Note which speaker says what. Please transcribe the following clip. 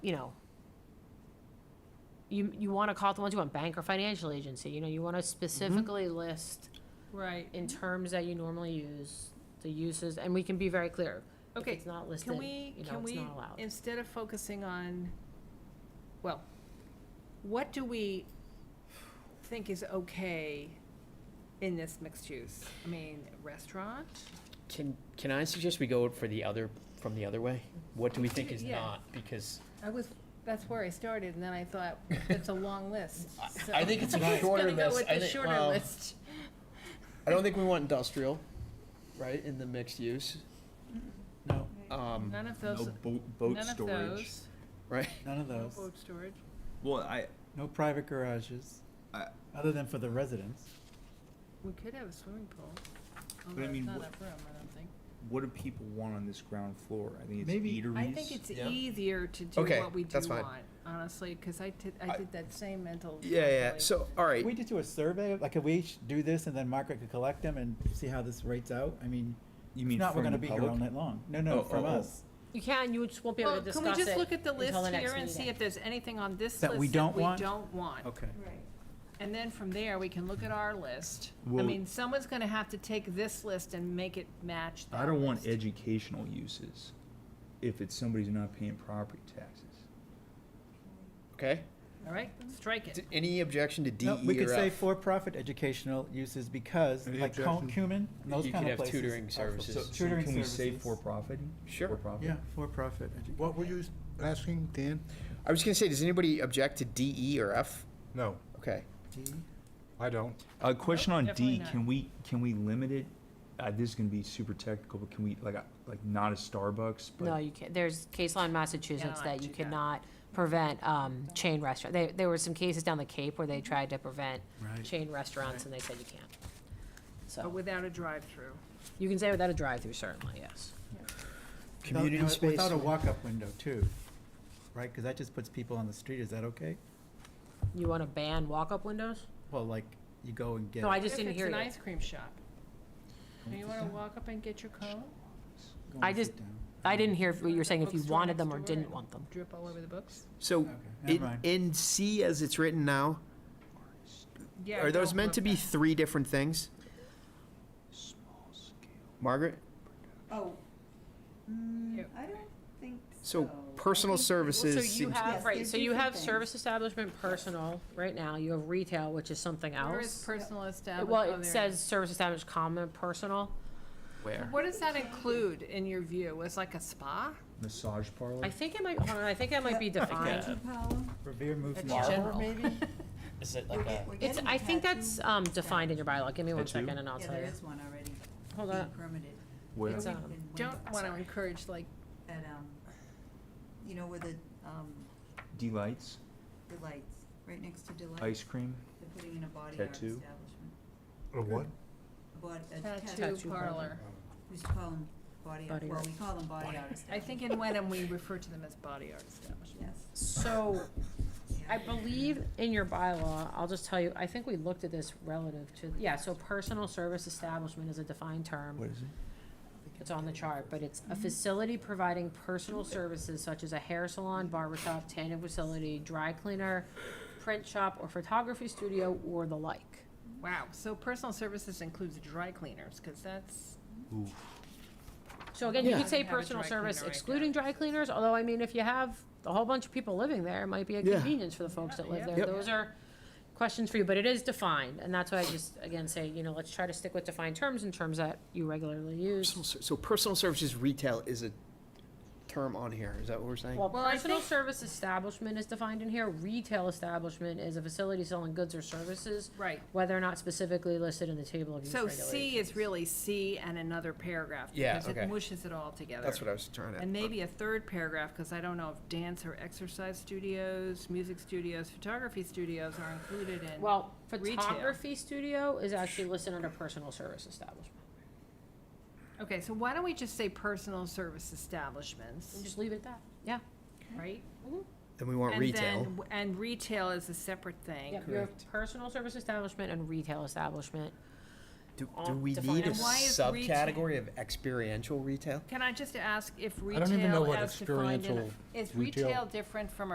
Speaker 1: you know, you, you want to call it the ones you want, bank or financial agency, you know, you
Speaker 2: Mm-hmm.
Speaker 1: want to specifically list
Speaker 2: Right.
Speaker 1: in terms that you normally use, the uses, and we can be very clear. If
Speaker 2: Okay,
Speaker 1: it's not listed,
Speaker 2: Can we,
Speaker 1: you know,
Speaker 2: can
Speaker 1: it's
Speaker 2: we,
Speaker 1: not allowed.
Speaker 2: instead of focusing on, well, what do we think is okay in this mixed use? I mean, restaurant?
Speaker 3: Can, can I suggest we go for the other, from the other way? What do we think is
Speaker 2: Yeah.
Speaker 3: not? Because
Speaker 2: I was, that's where I started, and then I thought, it's a long list.
Speaker 3: I-
Speaker 2: so-
Speaker 3: I think it's a
Speaker 2: I was
Speaker 3: shorter
Speaker 2: gonna go
Speaker 3: list.
Speaker 2: with
Speaker 3: I
Speaker 2: the
Speaker 3: think-
Speaker 2: shorter
Speaker 3: well,
Speaker 2: list.
Speaker 3: I don't think we want industrial, right, in the mixed use. No. Um,
Speaker 2: None of
Speaker 4: No
Speaker 2: those,
Speaker 4: boat, boat
Speaker 2: none of
Speaker 4: storage.
Speaker 2: those.
Speaker 3: right.
Speaker 5: None of
Speaker 2: No
Speaker 5: those.
Speaker 2: boat storage.
Speaker 4: Well, I,
Speaker 5: No private garages,
Speaker 4: I,
Speaker 5: other than for the residents.
Speaker 2: We could have a swimming pool,
Speaker 4: I
Speaker 2: although it's
Speaker 4: mean,
Speaker 2: not
Speaker 4: what-
Speaker 2: enough room, I don't think.
Speaker 4: what do people want on this ground floor? I think it's
Speaker 5: Maybe-
Speaker 4: eateries.
Speaker 2: I think it's
Speaker 3: Yeah.
Speaker 2: easier to do
Speaker 3: Okay,
Speaker 2: what we do
Speaker 3: that's fine.
Speaker 2: want, honestly, because I did, I
Speaker 4: I-
Speaker 2: did that same mental.
Speaker 3: Yeah, yeah.
Speaker 2: calculation.
Speaker 3: So, all
Speaker 5: If we
Speaker 3: right.
Speaker 5: just do a survey, like, could we each do this and then Margaret could collect them and see how this rates out? I mean,
Speaker 4: You
Speaker 5: if
Speaker 4: mean
Speaker 5: not,
Speaker 4: from
Speaker 5: we're gonna
Speaker 4: the
Speaker 5: be here all
Speaker 4: public?
Speaker 5: night long. No,
Speaker 4: Oh,
Speaker 5: no,
Speaker 4: oh,
Speaker 5: from
Speaker 4: oh.
Speaker 5: us.
Speaker 1: You can, you just won't be able
Speaker 2: Well,
Speaker 1: to
Speaker 2: can we
Speaker 1: discuss
Speaker 2: just
Speaker 1: it
Speaker 2: look at the
Speaker 1: until
Speaker 2: list
Speaker 1: the next
Speaker 2: here and see
Speaker 1: meeting.
Speaker 2: if there's anything on this
Speaker 5: That we
Speaker 2: list
Speaker 5: don't
Speaker 2: that we
Speaker 5: want?
Speaker 2: don't want?
Speaker 4: Okay.
Speaker 6: Right.
Speaker 2: And then from there, we can look at our list. I
Speaker 4: Well-
Speaker 2: mean, someone's gonna have to take this list and make it match that
Speaker 4: I don't want
Speaker 2: list.
Speaker 4: educational uses if it's somebody's not paying property taxes.
Speaker 3: Okay.
Speaker 2: All right, strike it.
Speaker 3: D- Any objection to D,
Speaker 5: No, we
Speaker 3: E,
Speaker 5: could
Speaker 3: or
Speaker 5: say
Speaker 3: F?
Speaker 5: for-profit educational uses because,
Speaker 4: Any
Speaker 5: like, Cu-
Speaker 4: objection?
Speaker 5: Cumin, and those
Speaker 3: You
Speaker 5: kind
Speaker 3: could have
Speaker 5: of places.
Speaker 3: tutoring
Speaker 5: are for-
Speaker 3: services.
Speaker 5: so
Speaker 3: So
Speaker 5: Tutoring
Speaker 4: Can we say
Speaker 5: services.
Speaker 4: for profit?
Speaker 3: Sure.
Speaker 4: For profit?
Speaker 5: Yeah, for-profit. edu-
Speaker 7: What were you s- asking, Dan?
Speaker 3: I was gonna say, does anybody object to D, E, or F?
Speaker 7: No,
Speaker 3: Okay.
Speaker 7: I don't.
Speaker 4: A question on
Speaker 2: definitely
Speaker 4: D,
Speaker 2: not.
Speaker 4: can we, can we limit it? Uh, this is gonna be super technical, but can we, like, uh, like not a Starbucks,
Speaker 1: No,
Speaker 4: but
Speaker 1: you can't, there's case law in Massachusetts
Speaker 2: Cannot
Speaker 1: that you
Speaker 2: do that.
Speaker 1: cannot prevent, um, chain restaurant, there, there were some cases down the Cape where they
Speaker 2: Mm-hmm.
Speaker 1: tried to prevent
Speaker 5: Right.
Speaker 1: chain restaurants, and they said you can't.
Speaker 2: But
Speaker 1: So,
Speaker 2: without a drive-through.
Speaker 1: you can say without a drive-through, certainly, yes.
Speaker 5: Without- no, Without a walk-up window too, right? Because that just puts people on the street. Is that okay?
Speaker 1: You wanna ban walk-up windows?
Speaker 5: Well, like, you go and get.
Speaker 1: No, I
Speaker 2: What
Speaker 1: just
Speaker 2: if
Speaker 1: didn't
Speaker 2: it's
Speaker 1: hear
Speaker 2: an
Speaker 1: you.
Speaker 2: ice cream shop? Do you wanna walk up and get your cone?
Speaker 5: go
Speaker 1: I
Speaker 5: and
Speaker 1: just-
Speaker 5: sit down.
Speaker 1: I didn't hear if- what you were saying, if you
Speaker 2: Bookstore
Speaker 1: wanted them or
Speaker 2: next door
Speaker 1: didn't
Speaker 2: and
Speaker 1: want them.
Speaker 2: Drip all over the books?
Speaker 3: So,
Speaker 5: Okay, never
Speaker 3: in,
Speaker 5: mind.
Speaker 3: in C as it's written now,
Speaker 2: Yeah.
Speaker 3: are those
Speaker 2: don't
Speaker 3: meant
Speaker 2: want
Speaker 3: to be
Speaker 2: that.
Speaker 3: three different things?
Speaker 4: small scale.
Speaker 3: Margaret?
Speaker 6: Oh, mm,
Speaker 2: Yep.
Speaker 6: I don't think so.
Speaker 3: So personal
Speaker 6: I think-
Speaker 3: services.
Speaker 1: So you
Speaker 3: seems-
Speaker 1: have,
Speaker 6: Yes,
Speaker 1: right,
Speaker 6: they're
Speaker 1: so you
Speaker 6: different
Speaker 1: have
Speaker 6: things.
Speaker 1: service establishment, personal, right now, you have retail, which is something
Speaker 2: Where is
Speaker 1: else.
Speaker 2: personal establishment?
Speaker 1: Well, it says service establishment, comma, personal.
Speaker 3: Where?
Speaker 2: What does that include in your view? Was like a spa?
Speaker 4: Massage parlor?
Speaker 1: I think it might, hold on, I think it might be defined.
Speaker 6: Tattoo parlor?
Speaker 5: Revere moved.
Speaker 2: That's
Speaker 5: north.
Speaker 2: general.
Speaker 3: Is it
Speaker 6: We're get- we're
Speaker 1: It's,
Speaker 6: getting
Speaker 1: I think
Speaker 6: tattoo-
Speaker 1: that's, um, defined in your bylaw, give me one
Speaker 4: Tattoo?
Speaker 1: second and I'll
Speaker 6: Yeah,
Speaker 1: tell
Speaker 6: there
Speaker 1: you.
Speaker 6: is one already.
Speaker 1: Hold
Speaker 6: being
Speaker 1: on.
Speaker 6: Permitted.
Speaker 4: Where?
Speaker 1: It's,
Speaker 6: Permitted
Speaker 1: um,
Speaker 6: in
Speaker 2: Don't
Speaker 6: Wyndham
Speaker 2: want to encourage like,
Speaker 6: At, um, you know, where the, um,
Speaker 4: Delights,
Speaker 6: delights, right next to delights,
Speaker 4: ice cream?
Speaker 6: they're putting in a body art
Speaker 4: Tattoo.
Speaker 6: establishment.
Speaker 7: A what?
Speaker 6: A bod- a
Speaker 2: tattoo
Speaker 1: Tattoo parlor.
Speaker 2: parlor.
Speaker 6: We used to call them body art,
Speaker 1: Body
Speaker 6: well,
Speaker 1: art.
Speaker 6: we call them body art
Speaker 2: I
Speaker 6: establishments,
Speaker 2: think in Wenham, we refer to them as body art establishment.
Speaker 6: yes.
Speaker 1: So,
Speaker 6: yeah.
Speaker 1: I believe in your bylaw, I'll just tell you, I think we looked at this relative to, yeah, so personal service establishment is a defined term.
Speaker 4: is it?
Speaker 1: It's on the chart, but it's a facility providing personal services such as a hair salon, barber shop, tanning facility, dry cleaner, print shop, or photography studio, or the like.
Speaker 2: Wow, so personal services includes dry cleaners, because that's,
Speaker 1: So again, you
Speaker 3: Yeah.
Speaker 1: could say
Speaker 2: Have a dry
Speaker 1: personal service
Speaker 2: cleaner right
Speaker 1: excluding dry cleaners, although I mean, if you have a whole bunch of people living there, it might be a
Speaker 3: Yeah.
Speaker 1: convenience for the folks that live
Speaker 2: Yeah,
Speaker 1: there.
Speaker 2: yeah.
Speaker 1: Those are questions for you, but it is defined, and that's why I just, again, say, you know, let's try to stick with defined terms and terms that you regularly
Speaker 3: Personal
Speaker 1: use.
Speaker 3: ser- So personal services retail is a term on here, is that what we're saying?
Speaker 1: Well,
Speaker 2: Well, I
Speaker 1: personal
Speaker 2: think-
Speaker 1: service establishment is defined in here, retail establishment is a facility selling goods or services,
Speaker 2: right.
Speaker 1: whether or not specifically listed in the table of use
Speaker 2: So
Speaker 1: regulations.
Speaker 2: C is really C and another paragraph,
Speaker 3: Yeah,
Speaker 2: because it
Speaker 3: okay.
Speaker 2: mushes it all together.
Speaker 3: That's what I was trying to.
Speaker 2: And maybe a third paragraph, because I don't know if dance or exercise studios, music studios, photography studios are included in.
Speaker 1: Well,
Speaker 2: Retail.
Speaker 1: photography studio is actually listed under personal service establishment.
Speaker 2: Okay, so why don't we just say personal service
Speaker 1: We'll
Speaker 2: establishments,
Speaker 1: just leave it at that, yeah.
Speaker 2: right?
Speaker 3: Then we want
Speaker 2: And
Speaker 3: retail.
Speaker 2: then- And retail is a separate thing.
Speaker 1: Yep, your
Speaker 3: Correct.
Speaker 1: personal service establishment and retail establishment.
Speaker 3: Do, do
Speaker 1: all
Speaker 3: we
Speaker 1: defined.
Speaker 3: need a
Speaker 2: And why is
Speaker 3: subcategory of experiential retail?
Speaker 2: Can I just ask if
Speaker 7: I don't even know
Speaker 2: retail
Speaker 7: what
Speaker 2: as defined in,
Speaker 7: experiential
Speaker 2: is
Speaker 7: retail-
Speaker 2: retail different from